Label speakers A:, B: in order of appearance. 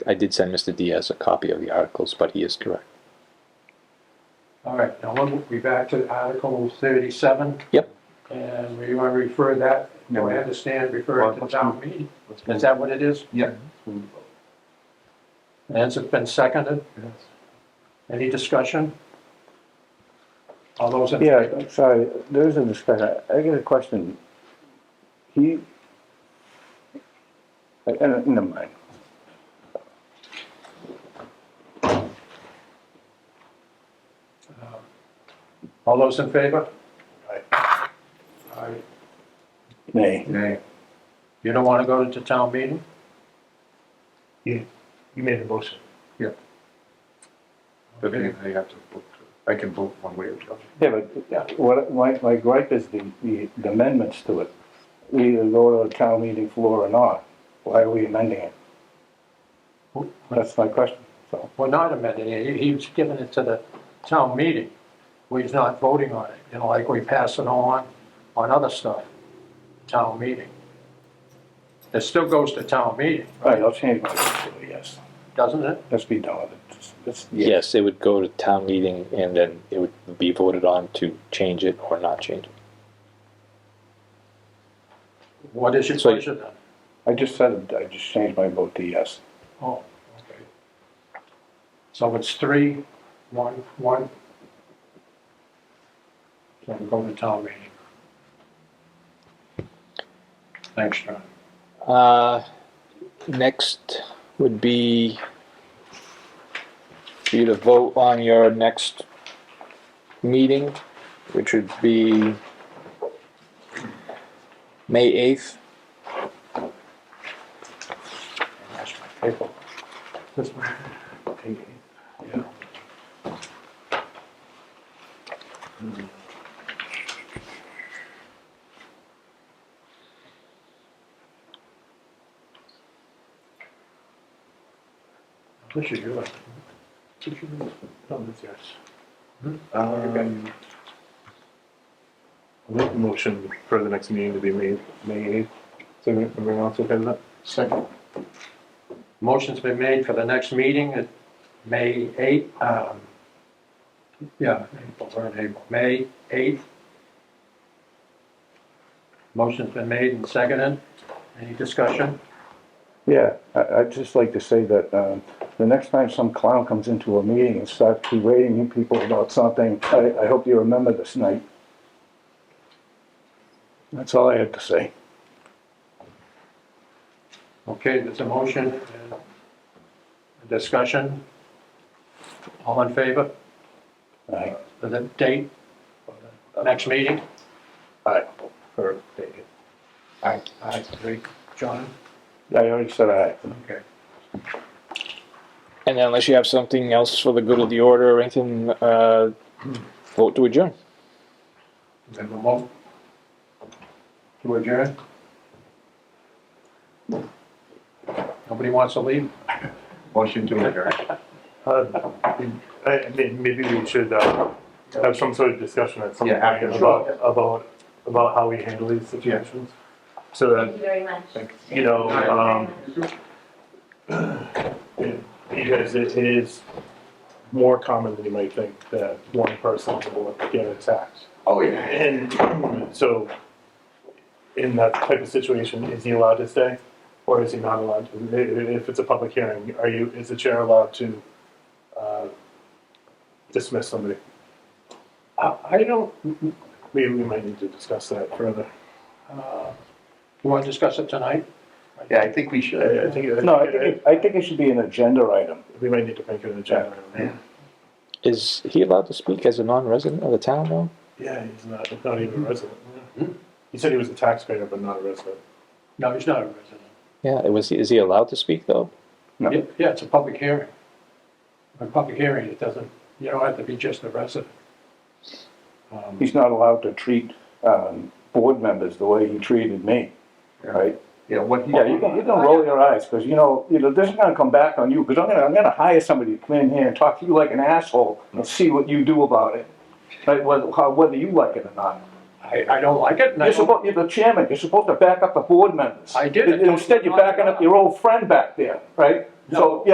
A: I did send Mr. Diaz a copy of the articles, but he is correct.
B: All right, now we'll be back to Article thirty-seven.
A: Yep.
B: And we want to refer that,
C: No,
B: do I
C: we-
B: understand, refer it to
C: Well,
B: town meeting?
C: Let's
B: Is
C: move-
B: that what it is?
C: Yeah. let's move the vote.
B: Has it been seconded?
C: Yes.
B: Any discussion? All those in
D: Yeah,
B: favor?
D: I'm sorry, there is a discussion. I I get a question. He, I, I don't, never mind.
B: All those in favor? All right.
D: Nay.
C: Nay.
B: You don't want to go to town meeting?
E: You made a motion.
C: But they, they have to vote. I can vote one way or the other.
D: Yeah, but what, my, my gripe is the, the amendments to it. We either go to the town meeting floor or not. Why are we amending it? That's my question, so.
B: We're not amending it, He- he's giving it to the town meeting. We're not voting on it, you know, like we pass it on, on other stuff, town meeting. It still goes to town meeting,
D: All right, I'll change my, vote to yes.
B: doesn't it?
D: Let's be done with it. Just- just-
A: Yes, it would go to town meeting and then it would be voted on to change it or not change it.
B: What is your
A: So-
B: pleasure then?
D: I just said, it. I just changed my vote to yes.
B: Oh, okay. So it's three, one, one. So we go to town meeting. Thanks, John.
A: Uh, next would be for you to vote on your next meeting, which would be May 8th.
B: That's my paper. This one. Yeah. Hmm. This is yours. Did you read? No, this yours. Hmm?
E: Um, I'll make a motion for the next meeting to be made, May eighth. So everyone else okay with that?
B: Second. Motion's been made for the next meeting at May 8, um, yeah, April, we're in April, May 8th. Motion's been made and seconded. Any discussion?
D: Yeah, I, I'd just like to say that, um, the next time some clown comes into a meeting and starts berating you people about something, I, I hope you remember this night. That's all I had to say.
B: Okay, there's a motion and a discussion. All in favor
D: Aye.
B: of the date for the next meeting?
D: Aye.
E: For May eighth.
B: Aye. Aye, agree. John?
D: I already said aye.
B: Okay.
A: And then unless you have something else for the good of the order or anything, uh, vote to adjourn.
B: Then we'll move to adjourn. Nobody wants to leave?
C: Motion to adjourn.
E: Uh, I- I mean, maybe we should, uh, have some sort of discussion at some
C: Yeah, after
E: point
C: the
E: about, about, about how we handle these situations. So
F: Thank
C: uh,
E: that,
F: you very much.
E: you know,
F: Thank you very
E: um,
F: much.
E: it- you guys, it is more common than you might think that one person will get attacked.
C: Oh, yeah.
E: And so, in that type of situation, is he allowed to stay, or is he not allowed? to? I- If it's a public hearing, are you? Is the chair allowed to uh, dismiss somebody?
B: I I don't,
E: We, we might need to discuss that further.
B: uh, you want to discuss it tonight?
C: Yeah, I think we should.
E: I, I think, I think,
D: No, I think, it- I think it should be an agenda item.
E: we might need to make it an agenda.
C: Yeah.
A: Is he allowed to speak as a non-resident of the town now?
E: Yeah, he's not not even a resident. He said he was a taxpayer, but not a resident.
B: No, he's not a resident.
A: Yeah, it was, is he allowed to speak though?
D: No.
B: Yeah, Yeah, it's a public hearing. A public hearing, it doesn't, you don't have to be just a resident. Um,
D: He's not allowed to treat, um, board members the way he treated me, right?
C: Yeah, what?
D: Yeah, you can, you can roll your eyes, because you know, you know, this is gonna come back on you, because I'm gonna, I'm gonna hire somebody to come in here and talk to you like an asshole and see what you do about it. Like, whether, how- whether you like it or not.
B: I, I don't like it, and I
D: You're
B: don't-
D: supposed, you're the chairman, you're supposed to back up the board members.
B: I did.
D: And Instead, you're backing up your old friend back there, right? So, yeah,